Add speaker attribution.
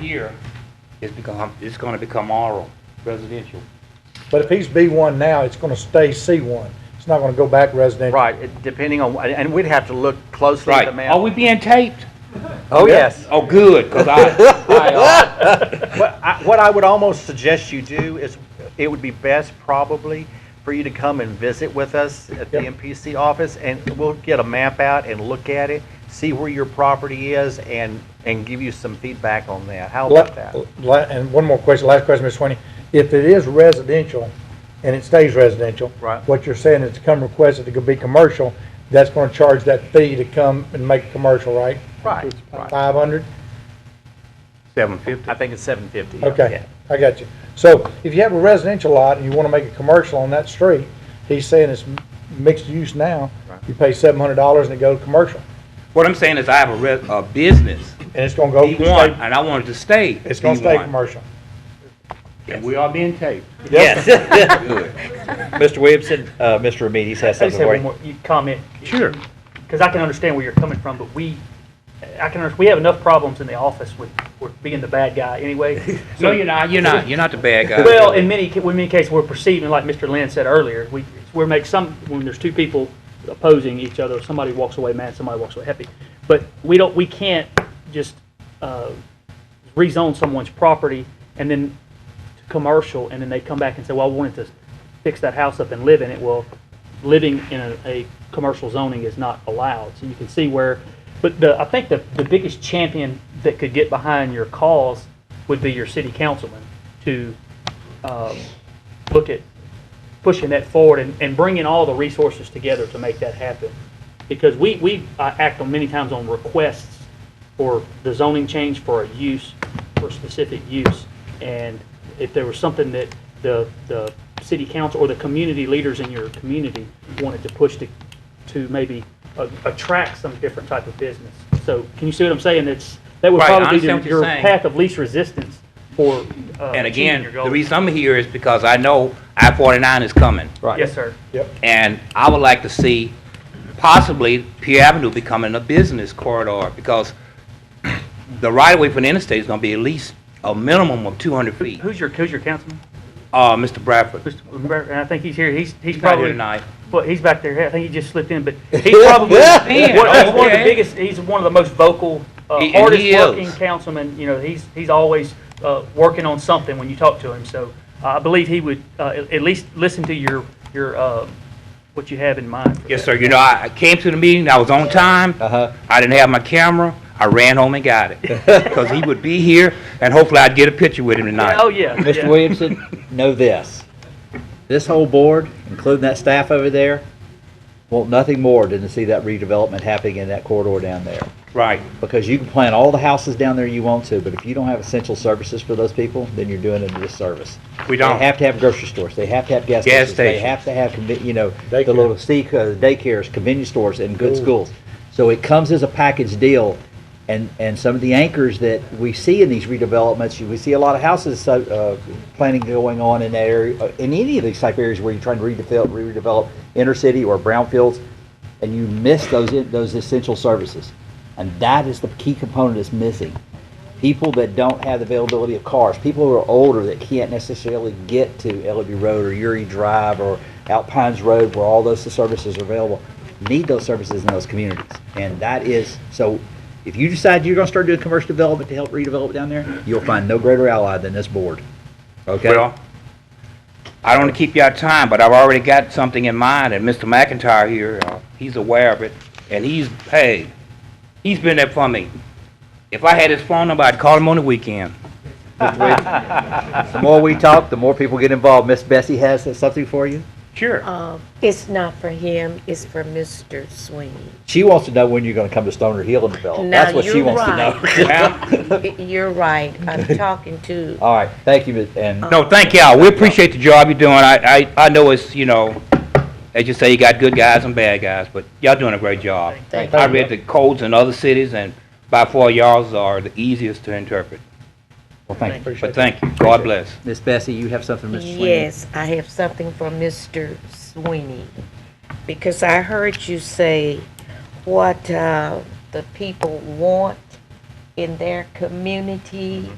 Speaker 1: here is become, it's gonna become rural, residential.
Speaker 2: But if he's B1 now, it's going to stay C1. It's not going to go back residential.
Speaker 3: Right, it- depending on, and we'd have to look closely at the map.
Speaker 1: Are we being taped?
Speaker 3: Oh, yes.
Speaker 1: Oh, good, cause I, I, uh,
Speaker 3: What I- what I would almost suggest you do is, it would be best probably for you to come and visit with us at the
Speaker 2: Yep.
Speaker 3: MPC office, and we'll get a map out and look at it, see where your property is, and, and give you some feedback on that. How about that?
Speaker 2: La- la- And one more question, last question, Ms. Sweeney. If it is residential and it stays residential.
Speaker 3: Right.
Speaker 2: What you're saying is to come request it to go be commercial, that's going to charge that fee to come and make it commercial, right?
Speaker 3: Right, right.
Speaker 2: 500?
Speaker 1: seven fifty.
Speaker 3: I think it's seven fifty.
Speaker 2: Okay, I got you. So if you have a residential lot and you want to make a commercial on that street, he's saying it's m- mixed use now,
Speaker 3: Right.
Speaker 2: you pay $700 and it goes commercial.
Speaker 1: What I'm saying is I have a res, a business,
Speaker 2: And it's going to go.
Speaker 1: B one, and I wanted to stay
Speaker 2: Oh, It's going to stay
Speaker 1: B1.
Speaker 2: commercial.
Speaker 1: And we are being taped.
Speaker 4: Yes. Mr. Williamson, uh, Mr. Remedies has
Speaker 5: I just
Speaker 4: something
Speaker 5: have
Speaker 4: for
Speaker 5: one
Speaker 4: you.
Speaker 5: more, you comment,
Speaker 1: Sure.
Speaker 5: because I can understand where you're coming from, but we, I can, under- we have enough problems in the office with, with being the bad guy anyway.
Speaker 1: No, you're not, you're not, you're not the bad guy.
Speaker 5: Well, in many, ca- in many cases, we're perceiving, like Mr. Lynn said earlier, we, we're make some, when there's two people opposing each other, somebody walks away mad, somebody walks away happy. But we don't, we can't just, uh, rezone someone's property and then to commercial, and then they come back and say, well, I wanted to fix that house up and live in it. Well, living in a, a commercial zoning is not allowed. So you can see where, but the, I think the, the biggest champion that could get behind your cause would be your city councilman to um, look at pushing that forward and, and bringing all the resources together to make that happen. Because we, we uh, act on many times on requests for the zoning change for a use, for a specific use. And if there was something that the, the city council or the community leaders in your community wanted to push to, to maybe uh, attract some different type of business. So can you see what I'm saying? It's, that would
Speaker 1: Right, I
Speaker 5: probably be
Speaker 1: understand
Speaker 5: the-
Speaker 1: what you're
Speaker 5: your
Speaker 1: saying.
Speaker 5: path of least resistance for uh,
Speaker 1: And
Speaker 5: achieving
Speaker 1: again,
Speaker 5: your
Speaker 1: the
Speaker 5: goals.
Speaker 1: reason I'm here is because I know I forty-nine is coming.
Speaker 2: Right.
Speaker 5: Yes, sir.
Speaker 2: Yep.
Speaker 1: And I would like to see possibly Pier Avenue becoming a business corridor because the right-of-way for the interstate is gonna be at least a minimum of two hundred feet.
Speaker 5: Who's your, who's your councilman?
Speaker 1: Uh, Mr. Bradford.
Speaker 5: Mr. Lambert? And I think he's here. He's, he's
Speaker 1: He's not here
Speaker 5: probably,
Speaker 1: tonight.
Speaker 5: well, he's back there. I think he just slipped in, but he's probably, one- he's one of the
Speaker 1: okay.
Speaker 5: biggest, he's one of the most vocal, uh,
Speaker 1: He- and he
Speaker 5: hardest working
Speaker 1: is.
Speaker 5: councilman. You know, he's, he's always, uh, working on something when you talk to him. So uh, I believe he would, uh, at, at least listen to your, your, uh, what you have in mind. for
Speaker 1: Yes,
Speaker 5: that.
Speaker 1: sir. You know, I I came to the meeting, I was on time.
Speaker 4: Uh-huh.
Speaker 1: I didn't have my camera. I ran home and got it. Because he would be here, and hopefully I'd get a picture with him tonight.
Speaker 5: Oh, yeah.
Speaker 4: Mr.
Speaker 5: yeah.
Speaker 4: Williamson, know this. This whole board, including that staff over there, want nothing more than to see that redevelopment happening in that corridor down there.
Speaker 1: Right.
Speaker 4: Because you can plan all the houses down there you want to, but if you don't have essential services for those people, then you're doing a disservice.
Speaker 1: We
Speaker 4: They
Speaker 1: don't.
Speaker 4: have to have grocery stores, they have to have gas
Speaker 1: Gas
Speaker 4: stations, they
Speaker 1: stations.
Speaker 4: have to have, conven- you know, the
Speaker 2: Daycare.
Speaker 4: little sea- uh, daycares, convenience stores, and good schools. So it comes as a package deal, and, and some of the anchors that we see in these redevelopments, you- we see a lot of houses, so, uh, planning going on in that area, uh, in any of these type areas where you're trying to redevelop, redevelop inner city or brownfields, and you miss those, those essential services. And that is the key component that's missing people that don't have the availability of cars, people who are older that can't necessarily get to Ellaby Road or Uri Drive or Alpines Road where all those services are available, need those services in those communities. And that is, so if you decide you're gonna start doing commercial development to help redevelop down there, you'll find no greater ally than this board. Okay?
Speaker 1: Well, I don't want to keep you out of time, but I've already got something in mind, and Mr. McIntyre here, uh, he's aware of it, and he's, hey, he's been there for me. If I had his phone number, I'd call him on the weekend.
Speaker 4: The more we talk, the more people get involved. Miss Bessie has something for you?
Speaker 1: Sure.
Speaker 6: Um, It's not for him, it's for Mr. Sweeney.
Speaker 4: She wants to know when you're gonna come to Stoner Hill and develop.
Speaker 6: Now,
Speaker 4: Oh, That's what she
Speaker 6: you're
Speaker 4: wants to know.
Speaker 1: Ma'am?
Speaker 6: Y- You're right, I'm talking to,
Speaker 4: All right, thank you, Ms. and
Speaker 1: No, thank y'all. We appreciate the job you're doing. I, I, I know it's, you know, as you say, you got good guys and bad guys, but y'all doing a great job.
Speaker 6: Thank
Speaker 1: I read the codes in other cities, and by far y'all's are the easiest to interpret.
Speaker 4: well, thank you.
Speaker 1: But thank you. God bless.
Speaker 4: Miss Bessie, you have something, Mr. Sweeney?
Speaker 6: yes, I have something for Mr. Sweeney. Because I heard you say
Speaker 4: Mm-hmm.
Speaker 6: what uh, the people want in their community